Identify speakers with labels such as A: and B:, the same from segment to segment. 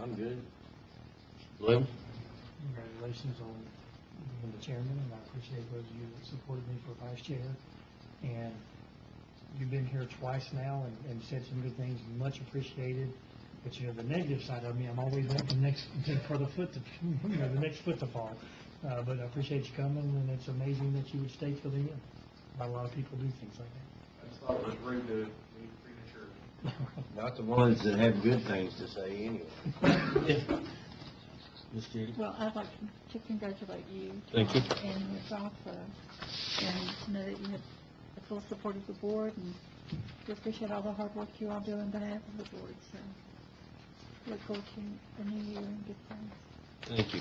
A: I'm good. Lou?
B: Congratulations on being the chairman, and I appreciate those of you that supported me for vice chair. And you've been here twice now and, and said some good things, much appreciated. But you know, the negative side of me, I'm always wanting the next, for the foot to, you know, the next foot to fall. Uh, but I appreciate you coming, and it's amazing that you would stay till the end. Not a lot of people do things like
C: I just thought it was rude to leave prematurely.
B: that.
A: Not the ones that have good things to say anyway. Ms. Judy?
D: Well, I'd like to congratulate you.
A: Thank you.
D: And your job, uh, and to know that you have the full support of the board, and we appreciate all the hard work you all do on behalf of the board, so look forward to the new year and good things.
E: Thank you.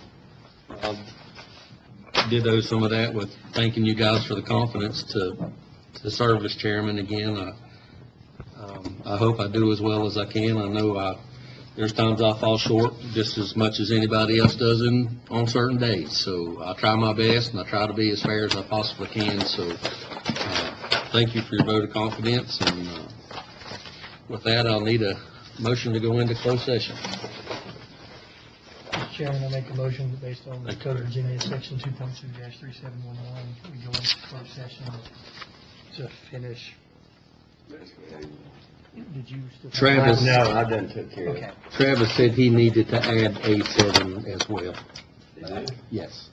E: Um, Ditto some of that with thanking you guys for the confidence to, to serve as chairman again. I- um, I hope I do as well as I can. I know I, there's times I fall short just as much as anybody else does in, on certain days. So I try my best and I try to be as fair as I possibly can. So, uh, thank you for your vote of confidence and, uh, with that, I'll need a motion to go into closed session.
B: Mr. Chairman, I make a motion that based on the Code of Virginia, Section 2.2-3711, we go into closed session to finish. Did you still?
E: Travis.
A: No, I done took care of
B: Okay.
A: it.
E: Travis said he needed to add A7 as well. Yes.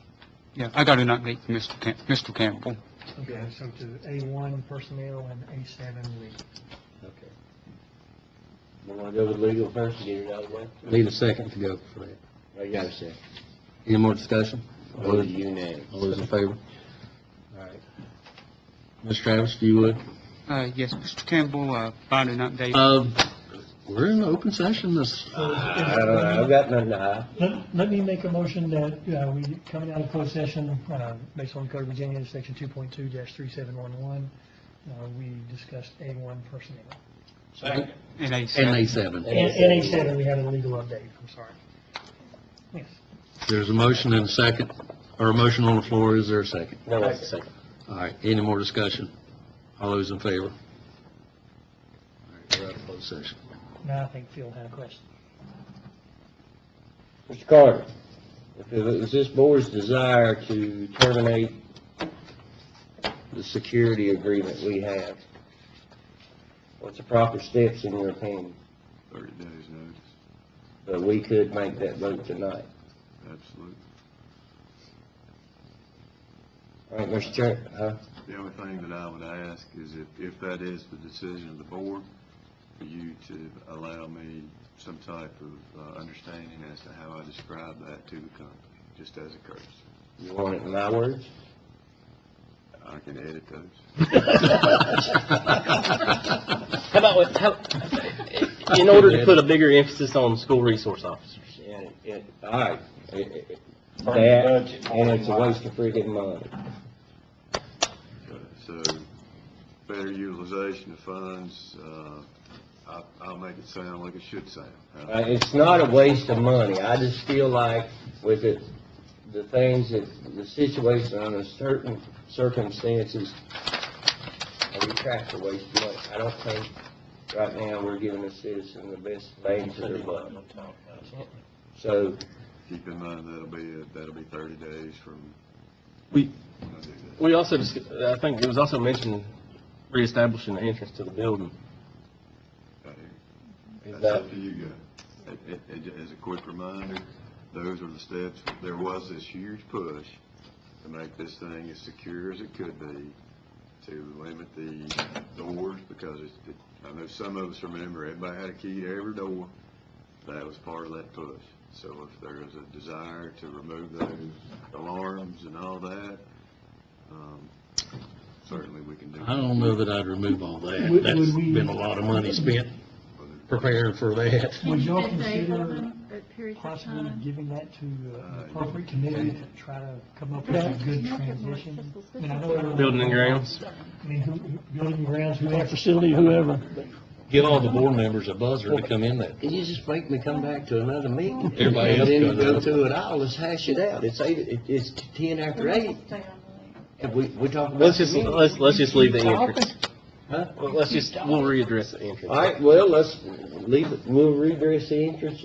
F: Yeah, I got an update from Mr. Cam- Mr. Campbell.
B: Okay, so to A1 personnel and A7 legal.
A: Okay. You wanna go with legal first and get it out of the way?
E: Need a second to go for that.
A: I got a second.
E: Any more discussion? All
A: Vote
E: those-
A: unanimous.
E: all those in favor? All right. Ms. Travis, if you would.
F: Uh, yes, Mr. Campbell, uh, got an update.
E: Um, we're in open session this,
A: I don't know,
E: Uh,
A: I've got nothing to hide.
B: Let, let me make a motion that, uh, we, coming out of closed session, uh, based on Code of Virginia, Section 2.2-3711, uh, we discussed A1 personnel.
F: And I said-
E: and A7.
B: And and A7, we had a legal update, I'm sorry. Yes.
E: There's a motion and a second, or a motion on the floor, is there a second?
A: No, that's a second.
E: All right, any more discussion? All those in favor? All right, we're out of closed session.
B: Now I think Phil had a question.
A: Mr. Carter, if it was this board's desire to terminate the security agreement we have, what's the proper steps in your opinion?
G: Thirty days notice,
A: But we could make that vote tonight.
G: absolutely.
A: All right, Mr. Chair, huh?
G: The only thing that I would ask is if, if that is the decision of the board, for you to allow me some type of uh, understanding as to how I describe that to the company, just as a courtesy.
A: You want it in my words?
G: I can edit those.
A: How about, with- how, in order to put a bigger emphasis on school resource officers? And, and, all right, it- it- that, and it's a waste of freaking money.
G: So, better utilization of funds, uh, I, I'll make it sound like it should sound.
A: Uh, It's not a waste of money. I just feel like with the, the things that, the situation under certain circumstances, uh, we track the waste of money. I don't think right now we're giving the citizen the best bang for their buck. So,
G: Keep in mind, that'll be, that'll be thirty days from.
A: We-
G: when I do that.
A: we also, dis- I think it was also mentioned reestablishing the entrance to the building.
G: Right here.
A: Is
G: That's
A: that,
G: up to you guys. It- it- it- As a quick reminder, those are the steps, there was this huge push to make this thing as secure as it could be, to limit the doors, because it's, it- I know some of us remember, everybody had a key to every door. That was part of that push. So if there is a desire to remove those alarms and all that, um, certainly we can do
E: I
G: that.
E: don't know that I'd remove all that.
B: Would-
E: That's
B: would we-
E: been a lot of money spent preparing for that.
B: Would y'all
D: Can you stay
B: consider
D: open at periods of
B: Possibly
D: time?
B: giving that to uh, an appropriate committee to try to come up with a good transition. And I know-
A: building and grounds?
B: I mean, who, who- building and grounds, whoever, facility, whoever.
E: Give all the board members a buzzer to come in there.
A: Can you just make me come back to another meeting?
E: Everybody
A: And
E: else
A: then
E: goes
A: go
E: out.
A: through it all, let's hash it out. It's eight, it- it's ten after eight,
D: Stay on
A: and we, we talk about.
H: Let's just,
A: the meeting.
H: let's, let's just leave the entrance.
A: Huh?
H: Let's just, we'll readdress the entrance.
A: All right, well, let's leave, it. we'll redress the entrance